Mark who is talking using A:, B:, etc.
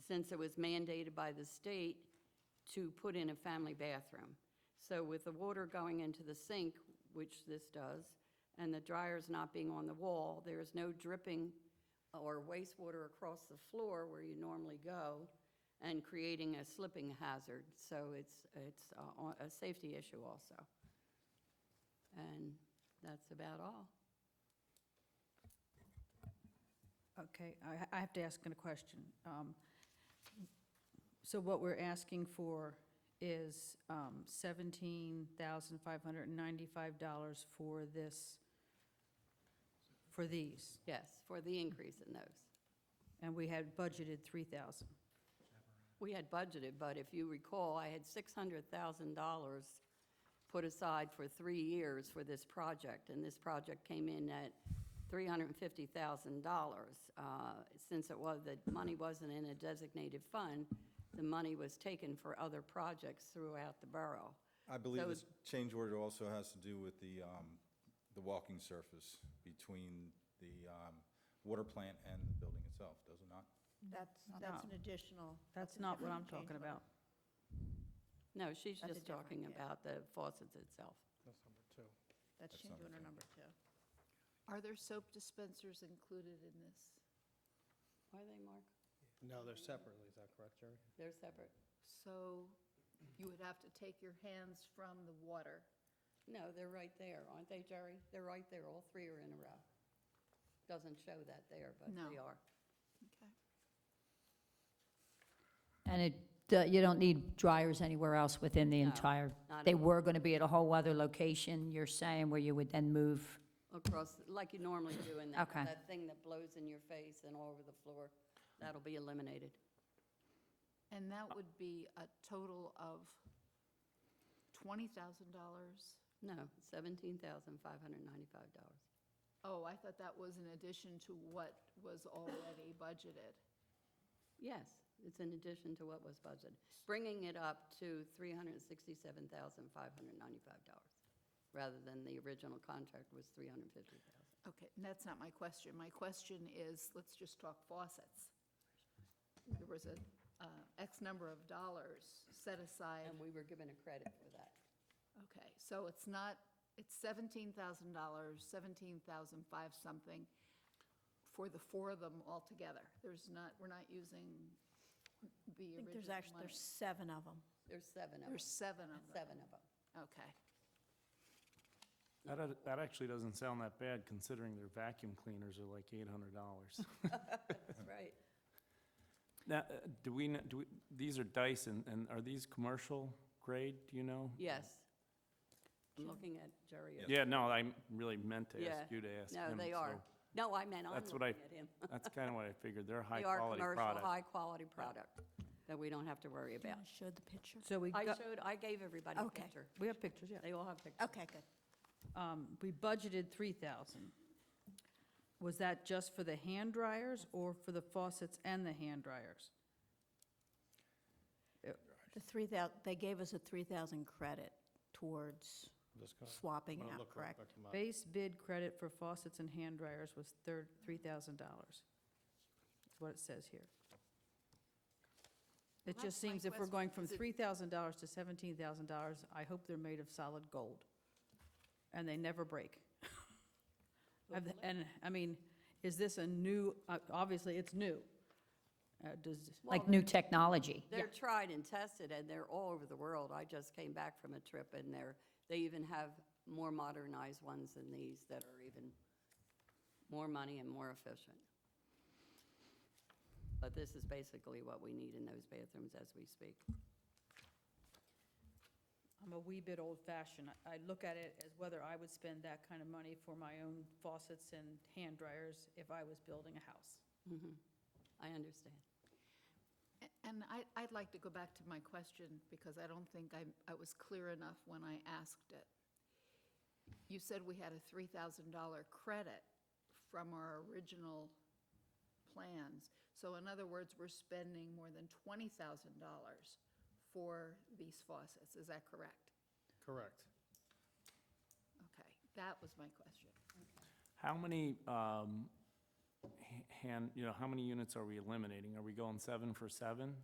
A: since it was mandated by the state to put in a family bathroom. So with the water going into the sink, which this does, and the dryers not being on the wall, there is no dripping or wastewater across the floor where you normally go and creating a slipping hazard. So it's, it's a, a safety issue also. And that's about all.
B: Okay, I, I have to ask a question. Um, So what we're asking for is um, $17,595 for this, for these,
A: Yes, for the increase in those.
B: and we had budgeted 3,000.
A: We had budgeted, but if you recall, I had $600,000 put aside for three years for this project, and this project came in at $350,000. Uh, Since it was, the money wasn't in a designated fund, the money was taken for other projects throughout the borough.
C: I believe
A: So-
C: this change order also has to do with the, um, the walking surface between the, um, water plant and the building itself, does it not?
D: That's,
B: No.
D: that's an additional.
B: That's
D: a
B: not what I'm
D: different change
B: talking
D: order.
B: about.
A: No, she's
D: That's a
A: just talking
D: different, yeah.
A: about the faucets itself.
D: That's
C: That's
D: change
C: not
D: order
C: okay.
D: number two. Are there soap dispensers included in this?
A: Are they, Mark?
E: No, they're separately, is that correct, Jerry?
A: They're separate?
D: So you would have to take your hands from the water.
A: No, they're right there, aren't they, Jerry? They're right there, all three are in a row. Doesn't show that there, but they
D: No.
A: are.
D: Okay.
F: And it, the- you don't need dryers anywhere else within the
A: No,
F: entire,
A: not
F: they
A: at all.
F: were going to be at a whole other location, you're saying, where you would then move?
A: Across, like you normally do in that,
F: Okay.
A: that thing that blows in your face and all over the floor, that'll be eliminated.
D: And that would be a total of twenty thousand dollars?
A: No, seventeen thousand five hundred ninety-five dollars.
D: Oh, I thought that was in addition to what was already budgeted.
A: Yes, it's in addition to what was budgeted, bringing it up to three hundred and sixty-seven thousand five hundred ninety-five dollars, rather than the original contract was three hundred and fifty thousand.
D: Okay, and that's not my question. My question is, let's just talk faucets. There was a, uh, X number of dollars set aside.
A: And we were given a credit for that.
D: Okay, so it's not, it's seventeen thousand dollars, seventeen thousand five something for the four of them altogether. There's not, we're not using the
G: I
D: original
G: think there's actually,
D: money.
G: there's seven of them.
A: There's seven of
D: There's
A: them,
D: seven of them.
A: seven of them.
D: Okay.
H: That, ad- that actually doesn't sound that bad considering their vacuum cleaners are like eight hundred dollars.
A: That's right.
H: Now, uh, do we, kn- do we, these are Dyson, and are these commercial grade, do you know?
A: Yes. I'm looking at Jerry.
H: Yeah, no, I m- really meant to
A: Yeah.
H: ask you to ask him.
A: No, they are.
H: so
A: No, I meant I'm
H: That's what
A: looking
H: I-
A: at him.
H: That's kind of what I figured, they're
A: They are
H: high-quality
A: commercial,
H: product.
A: high-quality product that we don't have to worry about.
G: Show the picture.
B: So we
A: I
B: got-
A: showed, I gave everybody a
G: Okay.
A: picture.
B: we have pictures, yeah.
A: They all have pictures.
G: Okay, good.
B: Um, We budgeted 3,000. Was that just for the hand dryers or for the faucets and the hand dryers?
G: The three thou, they gave us a three thousand credit towards
E: Just gonna-
G: swapping
E: I'm gonna
G: out,
E: look real
G: correct?
E: quick them up.
B: Base bid credit for faucets and hand dryers was thir- $3,000. That's what it says here. It
D: Well,
B: just
D: that's my
B: seems if we're
D: question,
B: going from
D: is it-
B: $3,000 to $17,000, I hope they're made of solid gold, and they never break. Have the- And, I mean, is this a new, uh, obviously, it's new. Uh, Does,
F: Like new technology?
A: They're tried and tested, and they're all over the world. I just came back from a trip, and they're, they even have more modernized ones than these that are even more money and more efficient. But this is basically what we need in those bathrooms as we speak.
B: I'm a wee bit old-fashioned. I- I look at it as whether I would spend that kind of money for my own faucets and hand dryers if I was building a house.
A: I understand.
D: A- And I, I'd like to go back to my question because I don't think I, I was clear enough when I asked it. You said we had a three thousand dollar credit from our original plans. So in other words, we're spending more than twenty thousand dollars for these faucets, is that correct?
E: Correct.
D: Okay, that was my question.
H: How many, um, h- hand, you know, how many units are we eliminating? Are we going seven for seven?